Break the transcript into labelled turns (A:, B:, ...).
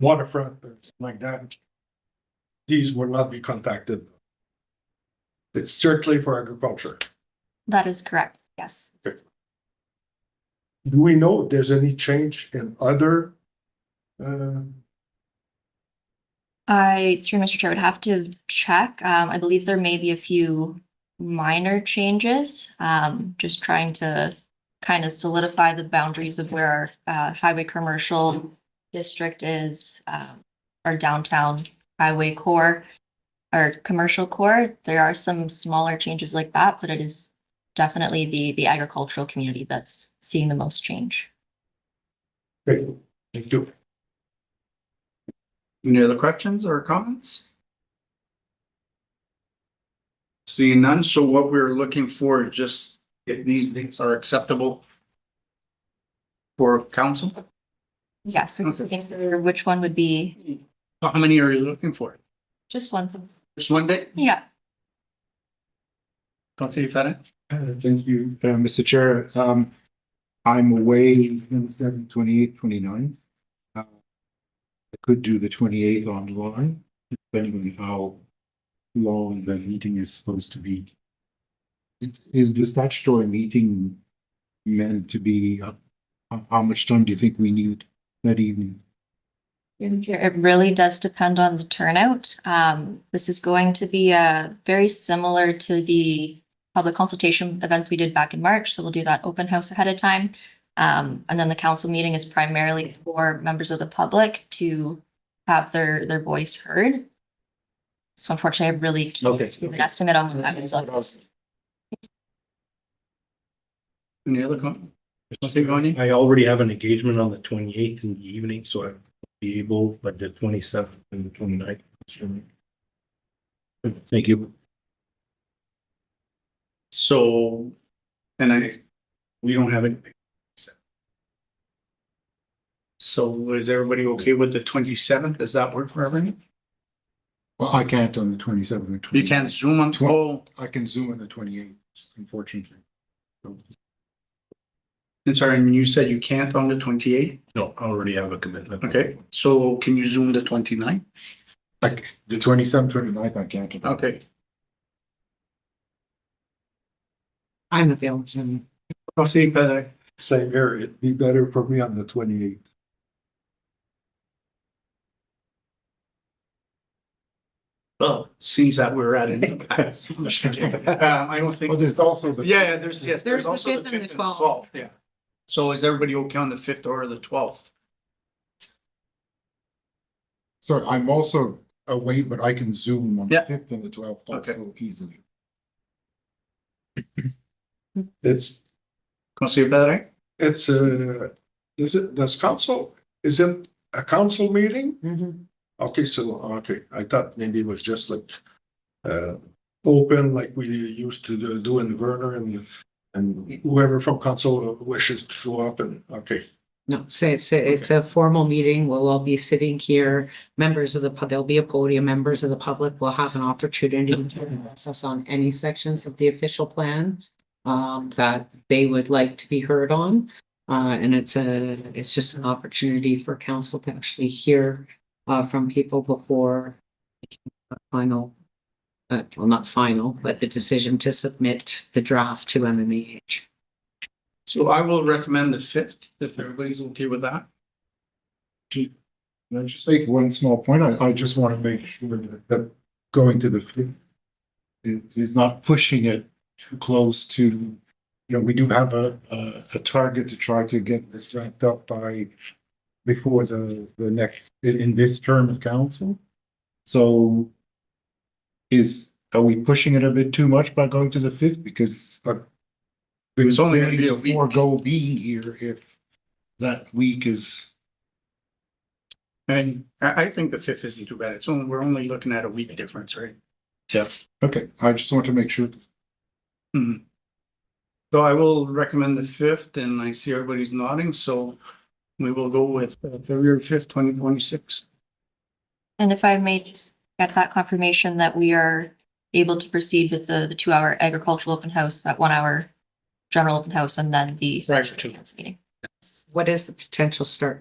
A: waterfront or something like that. These will not be contacted. It's strictly for agriculture.
B: That is correct, yes.
A: Do we know if there's any change in other? Uh,
B: I, through Mr. Chair, would have to check. Um, I believe there may be a few minor changes. Um, just trying to kind of solidify the boundaries of where our, uh, highway commercial district is, um, our downtown highway core, our commercial core. There are some smaller changes like that, but it is definitely the, the agricultural community that's seeing the most change.
A: okay, thank you.
C: Any other questions or comments? Seeing none, so what we're looking for is just if these things are acceptable for council?
B: Yes, we're just
C: Okay.
B: looking for which one would be
C: So How many are you looking for?
B: just one.
C: Just one day?
B: Yeah.
C: Councilor Fennec?
D: Uh, Thank you, uh, Mr. Chair. Um, I'm away on seven, twenty-eighth, twenty-ninth. I could do the twenty-eighth online, depending on how long the meeting is supposed to be. Is the statutory meeting meant to be, uh, how, how much time do you think we need that evening?
B: It really does depend on the turnout. Um, this is going to be, uh, very similar to the public consultation events we did back in March, so we'll do that open house ahead of time. Um, and then the council meeting is primarily for members of the public to have their, their voice heard. So unfortunately, I really
C: Okay,
B: can't give an
C: okay.
B: estimate on what happens on
C: Any other comment? Councilor Ioanni?
E: I already have an engagement on the twenty eighth in the evening, so I'll be able, but the twenty seventh and the 29th. is for me. Thank you.
C: So, and I, we don't have anything. So is everybody okay with the twenty-seventh? Does that work for everyone?
D: Well, I can't on the twenty-seventh.
C: You can't zoom on, oh,
D: I can zoom on the twenty-eighth, unfortunately.
C: and sorry, and you said you can't on the twenty-eighth?
E: No, I already have a commitment.
C: Okay, so can you zoom the 29th?
D: Like, the twenty-seventh, twenty-ninth, I can't.
C: Okay,
F: I'm available.
C: I'll see you better.
A: Same here, it'd be better for me on the twenty eighth.
C: Well, it seems that we're at an impasse. Um, I don't
D: Well,
C: think,
D: there's also the.
C: yeah, yeah, there's, yes, there's
F: There's the
C: also the
F: 5th and the
C: fifth and
F: 12th.
C: twelfth, yeah. So is everybody okay on the fifth or the twelfth?
D: So I'm also away, but I can zoom on the
C: Yeah.
D: fifth and the twelfth
C: Okay.
D: also easily.
A: It's,
C: Councilor Bedre?
A: it's a, is it, does council, is it a council meeting? Okay, so, okay, I thought maybe it was just like, uh, open like we used to do- do in Vernon and, and whoever from council wishes to show up and, okay.
F: No, so it's, a- it's a formal meeting. We'll all be sitting here. Members of the, pub- there'll be a podium. Members of the public will have an opportunity to address us on any sections of the official plan um, that they would like to be heard on. Uh, and it's a, it's just an opportunity for council to actually hear uh, from people before making the final, uh, well, not final, but the decision to submit the draft to MMEH.
C: So I will recommend the fifth, if everybody's okay with that.
D: Can I just make one small point? I, I just want to make sure that, that going to the fifth is, is not pushing it too close to, you know, we do have a, a, a target to try to get this wrapped up by before the, the next, in, in this term of council. So is, are we pushing it a bit too much by going to the fifth? Because uh, we
C: It's only gonna be a
D: to
C: week.
D: Forego being here if that week is
C: And I, I think the fifth isn't too bad. It's only, we're only looking at a week difference, right?
D: Okay, I just want to make sure.
C: So I will recommend the fifth and I see everybody's nodding, so we will go with uh, February fifth, twenty twenty-six.
B: And if I may just get that confirmation that we are able to proceed with the, the two hour agricultural open house, that one hour general open house, and then the.
C: Right,
B: special
C: two.
B: council Meeting.
F: What is the potential start